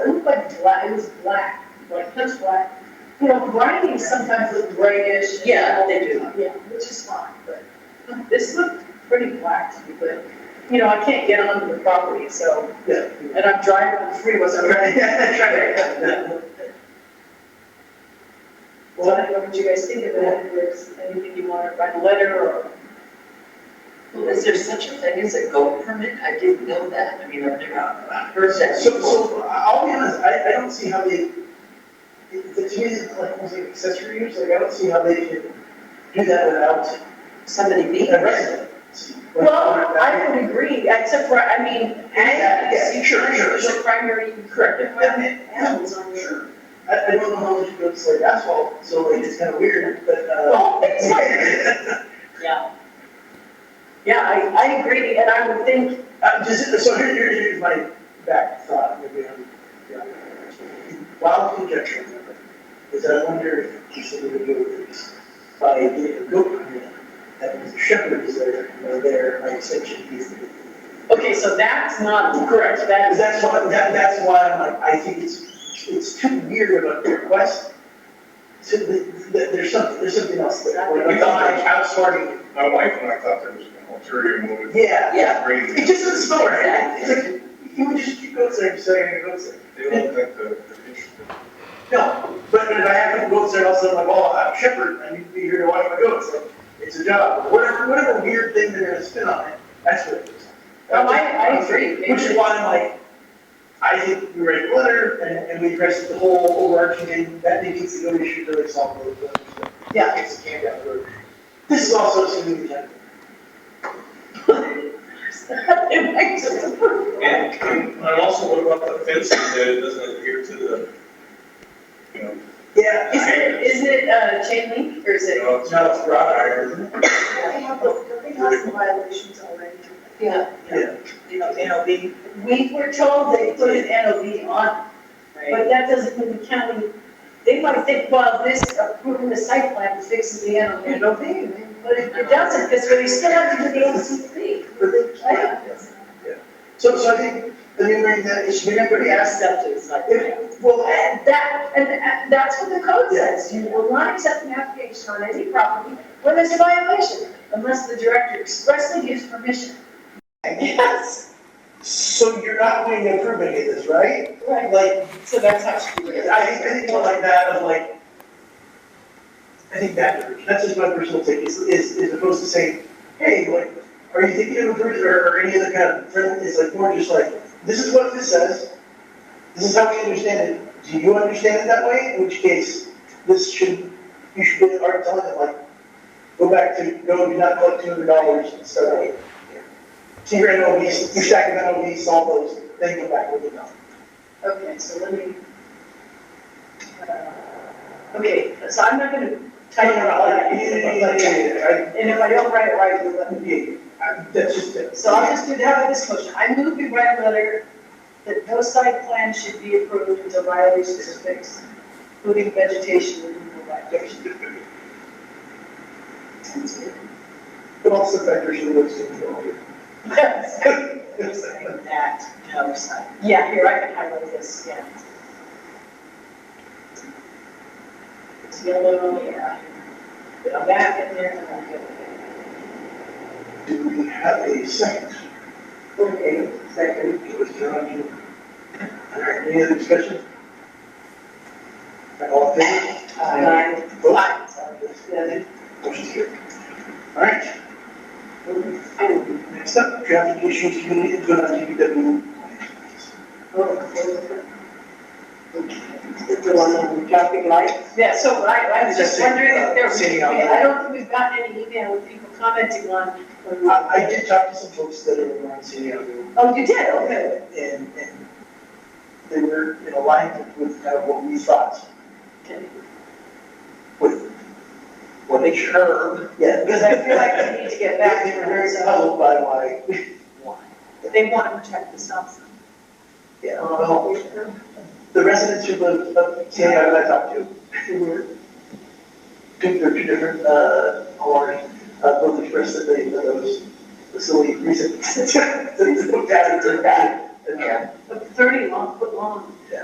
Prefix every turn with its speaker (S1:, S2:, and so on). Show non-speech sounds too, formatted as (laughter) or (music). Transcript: S1: black, it was black, like pitch black. You know, grindings sometimes look grayish.
S2: Yeah, they do.
S1: Yeah, which is fine, but um, this looked pretty black to me, but, you know, I can't get onto the property, so,
S3: Yeah.
S1: and I'm driving on the freeway, so I'm (laughs) trying to. Well, I don't know what you guys think of that, if there's anything you want to write a letter or.
S2: Is there such a thing as a goat permit? I didn't know that. I mean, I've never heard that
S3: So,
S2: before.
S3: so I'll be honest, I, I don't see how they, it- to me, it's like, almost like accessory use, like, I don't see how they can do that without
S2: Somebody being
S3: a
S2: arrested.
S3: resident.
S1: Well, I would agree, except for, I mean, ag
S3: Yeah,
S1: is
S3: sure, sure,
S1: usually the primary corrective
S3: Yeah.
S1: animals on your.
S3: Sure. I, I don't know how much goes like asphalt, so like, it's kind of weird, but, uh.
S1: Well, it's Yeah. Yeah, I, I agree, and I would think,
S3: Uh, just, so here, here- here's my back thought, maybe I'm, yeah. Wild conjecture, is I wonder if you should even go with this, by getting a goat permit, that means the shepherd is there, or there, by extension, he's the.
S1: okay, so that's not correct, that
S3: Because
S1: is.
S3: that's why, that, that's why I'm like, I think it's, it's too weird of a request, to, that, that there's something, there's something else there.
S4: We thought I outsmarted my wife when I thought there was an ulterior motive.
S3: Yeah, yeah, it
S4: Crazy.
S3: just doesn't smell right, it's like, you would just keep goats there, just saying, goats there.
S4: They don't let the, the interest.
S3: No, but if I have goats there, also I'm like, oh, I'm a shepherd, I need to be here to watch my goats, like, it's a job, whatever, whatever weird thing they're gonna spin on it, that's what it is.
S1: Oh, I- I agree.
S3: Which is why I'm like, I think we write a letter and, and we address the whole overarching thing, that negates the goat issue really solve those others, but, yeah, it's a camp out road. This is also assuming the gender.
S1: (laughs) It makes it-
S5: And and also, what about the fencing that it doesn't adhere to the, you know,
S3: Yeah.
S1: Is it, is it, uh, chain link, or is
S5: you
S1: it?
S5: know, it's not a wrought iron,
S2: They have, they have some violations already. Yeah.
S3: Yeah.
S2: You know, NLB.
S1: We were told they put an NOV on, but that doesn't mean the county, they might think, well, this approving the site plan fixes the NOV. But it it doesn't, because we still have to do the OCP,
S3: But they-
S1: right?
S3: So, so I think, the new thing that is, you're never gonna ask
S2: Stuff is like.
S3: if, well,
S1: And that, and and that's what the code says, you will not accept an application on any property when there's a violation, unless the director expressly gives permission. Yes.
S3: so you're not going to approve any of this, right?
S1: Right,
S3: Like,
S1: so that's how she
S3: I, I think more like that of like, I think that, that's just my personal take, is, is, is opposed to saying, hey, like, are you thinking of a person or, or any other kind of friend, it's like more just like, this is what this says, this is how we understand it, do you understand it that way? In which case, this should, you should be art telling it like, go back to, no, do not collect two hundred dollars, so. So your NOVs, your stack of NOVs, solve those, then go back with the dollar.
S1: Okay, so let me. uh, Okay, so I'm not gonna type it all out.
S3: I-
S1: And if I don't write it right, you'll let me.
S3: Yeah, I- that's just it.
S1: So I'll just do that with this motion. I move we write a letter that no site plan should be approved until violations are fixed, including vegetation removal (laughs) violations.
S3: But also factors in what's in the order.
S2: That, no, side.
S1: Yeah, here, I can highlight this, yeah. It's yellow, yeah. Put it back in there and I'll get it.
S3: Do we have a second? Okay, second. It was John. you- All right, any other discussion? All in favor?
S1: Aye.
S3: Vote.
S1: Aye, Uh, sorry.
S3: Motion's carried. All right. Next up, traffic issues, community, input on DPW.
S2: The one on the traffic light.
S1: Yeah, so I, I was just wondering if there was,
S3: Sitting out there.
S1: I don't think we've gotten any email with people commenting on.
S3: Uh, I, I did talk to some folks that are around San Diego.
S1: Oh, you did, okay.
S3: And, and they were in alignment with kind of what we thought with what they heard. Yeah.
S1: Because I feel like we need to get back
S3: They
S1: to
S3: were very
S1: her,
S3: puzzled by why,
S1: they want to protect the stop sign.
S3: yeah, the whole- the residents who live up, San Diego that I talked to, who were, think they're two different, uh, homeowners, uh, both expressed that they, that those silly reasons. That they looked at it, they're bad.
S1: But thirty long, foot long